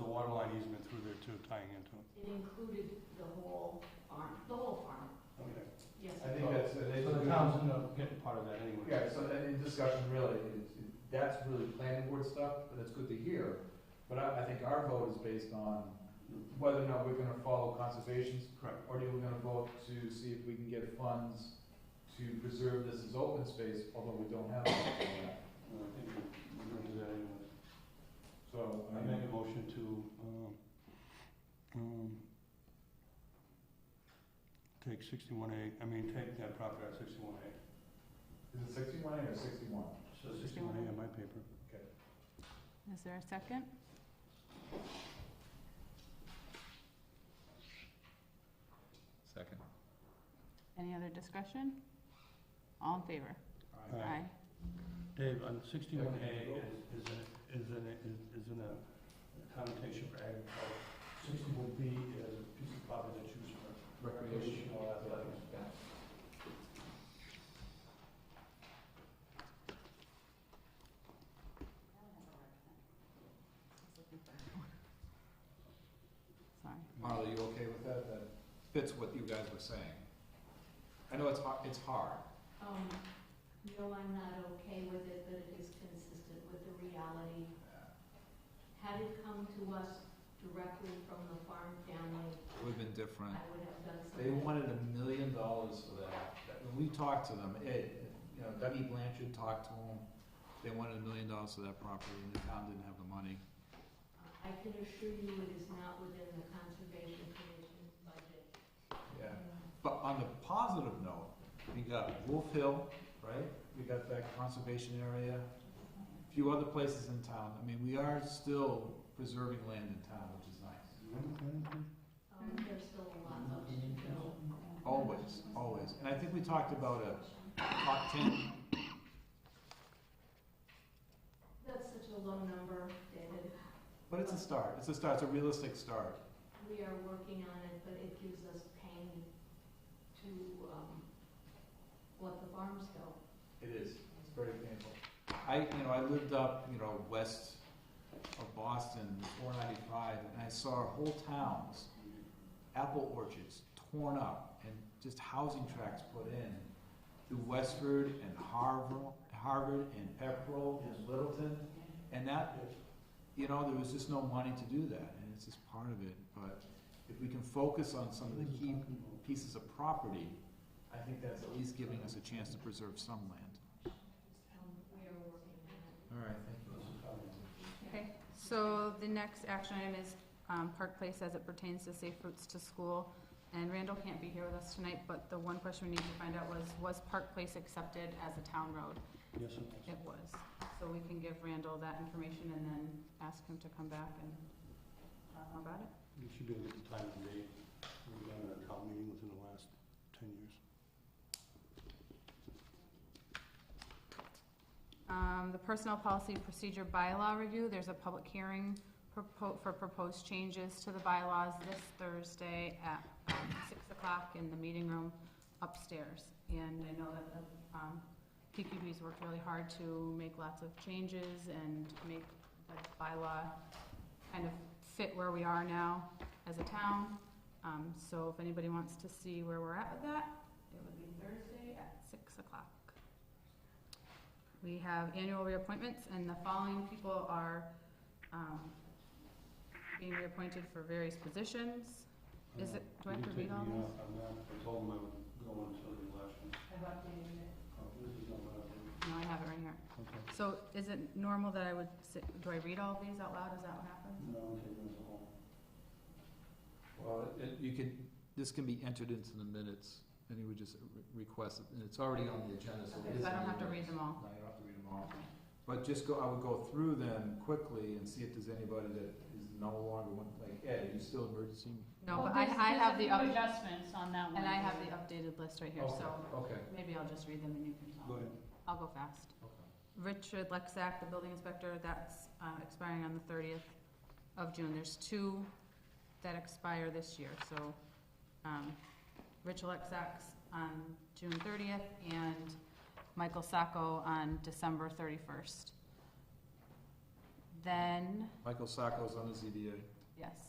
easement through there too, tying into it. It included the whole farm, the whole farm, Okay. yes. I think that's, and it's So a the good- town's not getting part of that anyway. Yeah, so that, in discussion really, it's, it- that's really planning board stuff, but it's good to hear. But I, I think our vote is based on whether or not we're gonna follow conservation's, Correct. or do we gonna vote to see if we can get funds to preserve this as open space, although we don't have Uh, that. I think we're gonna do that anyway. So, I I make mean, a motion to, um, um, take sixty-one A, I mean, take that property out sixty-one A. is it sixty-one or sixty-one? So sixty-one A on my paper. Is there a second? Second. Any other discussion? All in favor? Aye. Dave, on sixty-one A is, is in, is in, is- is in a connotation for agriculture. Sixty-one B is a piece of property that's used for recreational athletics. Sorry. Marla, you okay with that? That fits what you guys were saying. I know it's hard, it's hard. Um, no, I'm not okay with it, but it is consistent with the reality. Had it come to us directly from the farm family, It would've been different. I would have done They something. wanted a million dollars for that. That- When we talked to them, it, you know, Dougie Blanchard talked to them. They wanted a million dollars for that property and the town didn't have the money. I can assure you it is not within the conservation commission's budget. Yeah. But on the positive note, we got Wolf Hill, right? We got that conservation area, a few other places in town. I mean, we are still preserving land in town, which is nice. Mm-hmm. Um, there's still a lot left to go. Always, always. And I think we talked about a top ten. That's such a low number, David. But it's a start. It's a start. It's a realistic start. We are working on it, but it gives us pain to, um, what the farms go. It is, it's very painful. I, you know, I lived up, you know, west of Boston, four ninety-five, and I saw whole towns, apple orchards torn up and just housing tracts put in through Westford and Harvard, Harvard and Pepperell and Littleton. And that, you know, there was just no money to do that, and it's just part of it. But if we can focus on some of the key pieces of property, I think that's at least giving us a chance to preserve some land. Um, we are working on it. All right, thank Okay, so the next action item is um, Park Place as it pertains to safe routes to school. And Randall can't be here with us tonight, but the one question we need to find out was, was Park Place accepted as a town road? Yes, it was. It was. So we can give Randall that information and then ask him to come back and talk about it. You should be able to get the time and date. We've done a town meeting within the last ten years. Um, the personnel policy procedure bylaw review, there's a public hearing propo- for proposed changes to the bylaws this Thursday at, um, six o'clock in the meeting room upstairs. And I know that the, um, PQB's worked really hard to make lots of changes and make the bylaw kind of fit where we are now as a town. Um, so if anybody wants to see where we're at with that, it would be Thursday at six o'clock. We have annual reappointments, and the following people are um, being reappointed for various positions. Is it- do I have to read You all can this? take me off on that. I told them I would go until the election. I've updated it. Oh, This is not what I did. No, I have it right here. Okay. So is it normal that I would, sit- do I read all of these out loud? Is that what happens? No, I'm taking this home. you. Well, it- you could, this can be entered into the minutes, and you would just re- request, it, and it's already on the agenda, so it Okay, is. so I in don't the have to read minutes. them all. No, you don't have to read them all. But just go, I would go through them quickly and see if there's anybody that is no longer, one- like Ed, are you still emergency? No, but I, I have the, up- adjustments on that one. and I have the updated list right here, Okay, so Okay, maybe I'll just read them and you can Go tell. ahead. I'll go fast. okay. Richard Lexack, the building inspector, that's uh, expiring on the thirtieth of June. There's two that expire this year, so, um, Richard Lexack's on June thirtieth and Michael Sacco on December thirty-first. Then, Michael Sacco's on the ZBA. yes,